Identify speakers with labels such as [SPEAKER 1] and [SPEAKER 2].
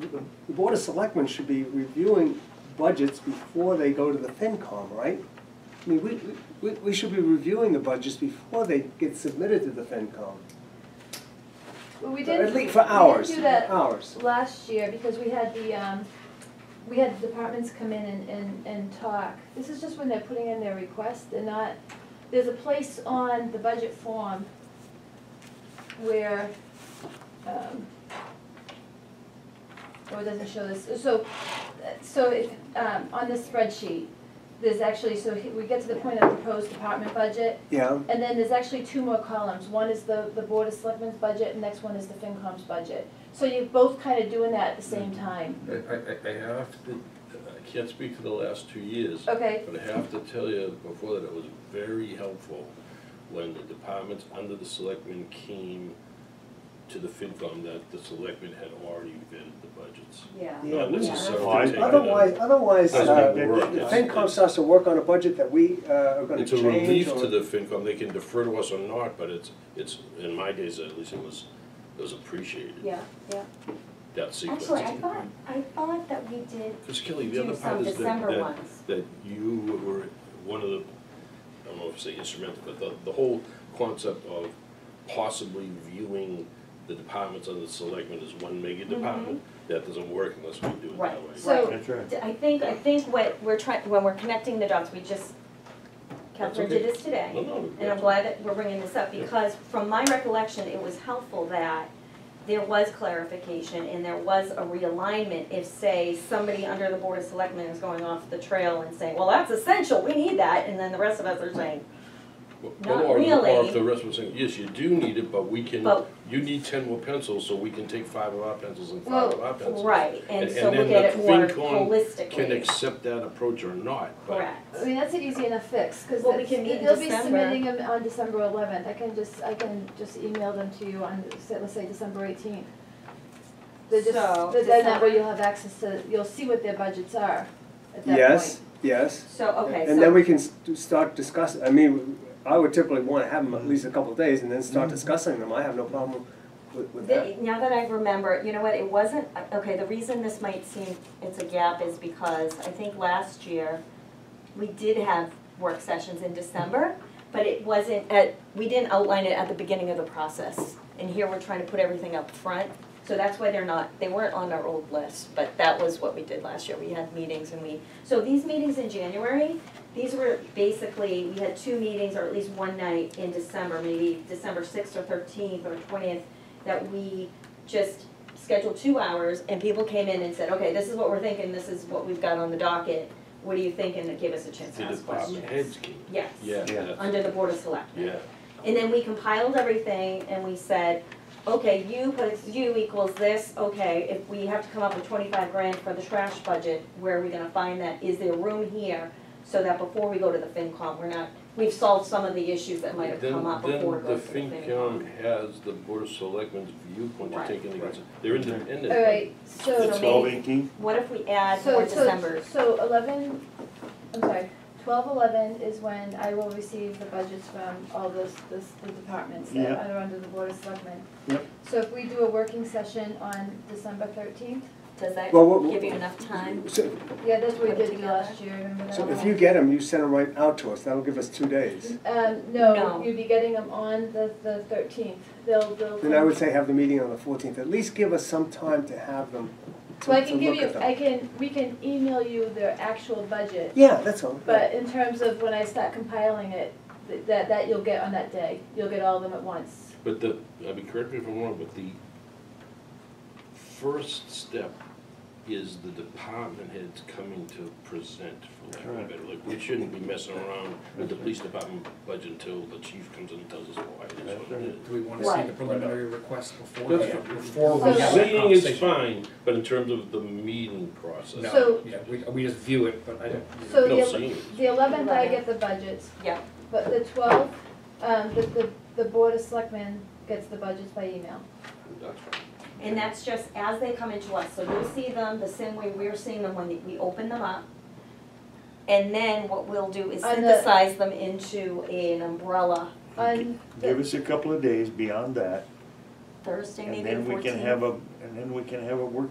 [SPEAKER 1] the the Board of Selectmen should be reviewing budgets before they go to the FinCom, right? I mean, we, we, we should be reviewing the budgets before they get submitted to the FinCom.
[SPEAKER 2] Well, we did,
[SPEAKER 1] At
[SPEAKER 2] we
[SPEAKER 1] least for hours,
[SPEAKER 2] did do that
[SPEAKER 1] hours.
[SPEAKER 2] last year because we had the, um, we had the departments come in and, and, and talk. This is just when they're putting in their request, they're not, there's a place on the budget form where, um, oh, it doesn't show this, so, so if, um, on the spreadsheet, there's actually, so we get to the point of proposed department budget,
[SPEAKER 1] Yeah,
[SPEAKER 2] and then there's actually two more columns, one is the, the Board of Selectmen's budget, and next one is the FinCom's budget. So you're both kind of doing that at the same time,
[SPEAKER 3] I, I, I have to, I can't speak for the last two years,
[SPEAKER 2] okay?
[SPEAKER 3] but I have to tell you before that it was very helpful when the departments under the selectmen came to the FinCom that the selectmen had already vetted the budgets.
[SPEAKER 2] Yeah.
[SPEAKER 1] Yeah,
[SPEAKER 3] Not
[SPEAKER 1] we-
[SPEAKER 3] necessarily
[SPEAKER 4] Otherwise-
[SPEAKER 3] taking it
[SPEAKER 1] otherwise, otherwise,
[SPEAKER 3] Doesn't
[SPEAKER 1] uh, the
[SPEAKER 3] work.
[SPEAKER 1] the FinCom starts to work on a budget that we uh, are gonna
[SPEAKER 3] It's
[SPEAKER 1] change
[SPEAKER 3] a
[SPEAKER 1] or.
[SPEAKER 3] relief to the FinCom, they can defer to us or not, but it's, it's, in my days at least, it was, it was appreciated,
[SPEAKER 2] Yeah, yeah.
[SPEAKER 3] that sequence.
[SPEAKER 5] Actually, I thought, I thought that we did
[SPEAKER 3] Because Kelly, the
[SPEAKER 5] do
[SPEAKER 3] other
[SPEAKER 5] some
[SPEAKER 3] part is that,
[SPEAKER 5] December
[SPEAKER 3] that,
[SPEAKER 5] ones.
[SPEAKER 3] that you were one of the, I don't know if I say instrumental, but the, the whole concept of possibly viewing the departments under the selectmen as one mega department, that doesn't work unless we do it that
[SPEAKER 5] Mm-hmm. Right,
[SPEAKER 3] way.
[SPEAKER 5] so,
[SPEAKER 4] That's right.
[SPEAKER 5] d- I think, I think what we're trying, when we're connecting the dots, we just, Catherine did this today.
[SPEAKER 3] No, no,
[SPEAKER 5] And I'm
[SPEAKER 3] that's-
[SPEAKER 5] glad that we're bringing this up, because from my recollection, it was helpful that there was clarification and there was a realignment if, say, somebody under the Board of Selectmen is going off the trail and saying, well, that's essential, we need that, and then the rest of us are saying,
[SPEAKER 3] Well,
[SPEAKER 5] not
[SPEAKER 3] or- Or
[SPEAKER 5] really.
[SPEAKER 3] if the rest of us saying, yes, you do need it, but we can,
[SPEAKER 5] But-
[SPEAKER 3] you need ten more pencils, so we can take five of our pencils and
[SPEAKER 2] Well,
[SPEAKER 3] five of our pencils.
[SPEAKER 5] right, and
[SPEAKER 3] And-
[SPEAKER 5] so
[SPEAKER 3] and
[SPEAKER 5] look
[SPEAKER 3] then
[SPEAKER 5] at it
[SPEAKER 3] the
[SPEAKER 5] more
[SPEAKER 3] FinCon
[SPEAKER 5] holistically.
[SPEAKER 3] Can accept that approach or not, but
[SPEAKER 5] Correct.
[SPEAKER 2] I mean, that's an easy enough fix, because
[SPEAKER 5] Well, we can meet in
[SPEAKER 2] they'll be
[SPEAKER 5] December.
[SPEAKER 2] submitting them on December eleventh, I can just, I can just email them to you on, say- let's say, December eighteenth. They're just,
[SPEAKER 5] So,
[SPEAKER 2] but then that
[SPEAKER 5] December-
[SPEAKER 2] way you'll have access to, you'll see what their budgets are at that point.
[SPEAKER 1] Yes, yes.
[SPEAKER 5] So, okay, so.
[SPEAKER 1] And then we can s- do- start discussing, I mean, I would typically wanna have them at least a couple of days and then start discussing them, I have no problem with, with that.
[SPEAKER 5] The- Now that I remember, you know what, it wasn't, okay, the reason this might seem it's a gap is because I think last year, we did have work sessions in December, but it wasn't at, we didn't outline it at the beginning of the process. And here we're trying to put everything up front, so that's why they're not, they weren't on our old list, but that was what we did last year, we had meetings and we, so these meetings in January, these were basically, we had two meetings or at least one night in December, maybe December sixth or thirteenth or twentieth, that we just scheduled two hours and people came in and said, okay, this is what we're thinking, this is what we've got on the docket, what do you think, and it gave us a chance to
[SPEAKER 3] the
[SPEAKER 5] ask
[SPEAKER 3] department
[SPEAKER 5] questions.
[SPEAKER 3] heads can,
[SPEAKER 5] Yes.
[SPEAKER 3] yeah,
[SPEAKER 4] Yeah.
[SPEAKER 3] that's-
[SPEAKER 5] Under the Board of Selectmen.
[SPEAKER 3] yeah.
[SPEAKER 5] And then we compiled everything and we said, okay, you puts, you equals this, okay, if we have to come up with twenty-five grand for the trash budget, where are we gonna find that? Is there room here? So that before we go to the FinCom, we're not, we've solved some of the issues that might have
[SPEAKER 3] Then-
[SPEAKER 5] come up before it goes to the
[SPEAKER 3] Then
[SPEAKER 5] FinCom.
[SPEAKER 3] the FinCom has the Board of Selectmen's viewpoint to
[SPEAKER 5] Right.
[SPEAKER 3] take into consideration, they're independent.
[SPEAKER 2] All right, so.
[SPEAKER 5] So
[SPEAKER 4] The twelve eighteen?
[SPEAKER 5] What if we add
[SPEAKER 2] So-
[SPEAKER 5] more
[SPEAKER 2] so-
[SPEAKER 5] December?
[SPEAKER 2] So eleven, I'm sorry, twelve eleven is when I will receive the budgets from all those, those, the departments that
[SPEAKER 4] Yeah.
[SPEAKER 2] are under the board of selectmen.
[SPEAKER 4] Yep.
[SPEAKER 2] So if we do a working session on December thirteenth,
[SPEAKER 5] Does that
[SPEAKER 1] Well, what-
[SPEAKER 5] give you enough time?
[SPEAKER 1] So,
[SPEAKER 2] yeah, that's what we
[SPEAKER 5] Put it
[SPEAKER 2] did
[SPEAKER 5] together.
[SPEAKER 2] last year, remember that?
[SPEAKER 1] so if you get them, you send them right out to us, that'll give us two days.
[SPEAKER 2] Um,
[SPEAKER 5] No.
[SPEAKER 2] no, you'd be getting them on the, the thirteenth, they'll, they'll.
[SPEAKER 1] Then I would say have the meeting on the fourteenth, at least give us some time to have them, to,
[SPEAKER 2] So I
[SPEAKER 1] to
[SPEAKER 2] can give
[SPEAKER 1] look
[SPEAKER 2] you,
[SPEAKER 1] at them.
[SPEAKER 2] I can, we can email you their actual budget.
[SPEAKER 1] Yeah, that's all.
[SPEAKER 2] But in terms of when I start compiling it, th- that, that you'll get on that day, you'll get all of them at once.
[SPEAKER 3] But the, I mean, correct me if I'm wrong, but the first step is the department heads coming to present, for lack of a better word. Like, we shouldn't be messing around with the police department budget until the chief comes in and tells us why it is what it is.
[SPEAKER 6] Do we wanna see the
[SPEAKER 5] Right.
[SPEAKER 6] preliminary request before,
[SPEAKER 3] That's
[SPEAKER 6] that- before we
[SPEAKER 2] So-
[SPEAKER 6] have that
[SPEAKER 3] Seeing is
[SPEAKER 6] conversation?
[SPEAKER 3] fine, but in terms of the meeting process,
[SPEAKER 6] No,
[SPEAKER 2] So-
[SPEAKER 6] yeah, we, we just view it, but I don't.
[SPEAKER 2] So
[SPEAKER 3] no
[SPEAKER 2] the,
[SPEAKER 3] seeing. is-
[SPEAKER 2] the eleventh, I get the budgets,
[SPEAKER 5] Yeah,
[SPEAKER 2] but the twelfth, um, the, the, the board of selectmen gets the budgets by email.
[SPEAKER 3] That's fine.
[SPEAKER 5] and that's just as they come into us, so you'll see them the same way we're seeing them when we open them up. And then what we'll do is
[SPEAKER 2] On the-
[SPEAKER 5] synthesize them into an umbrella
[SPEAKER 2] On,
[SPEAKER 4] Give us a couple of days beyond that,
[SPEAKER 5] Thursday,
[SPEAKER 4] and
[SPEAKER 5] maybe the
[SPEAKER 4] then we
[SPEAKER 5] fourteenth.
[SPEAKER 4] can have a, and then we can have a working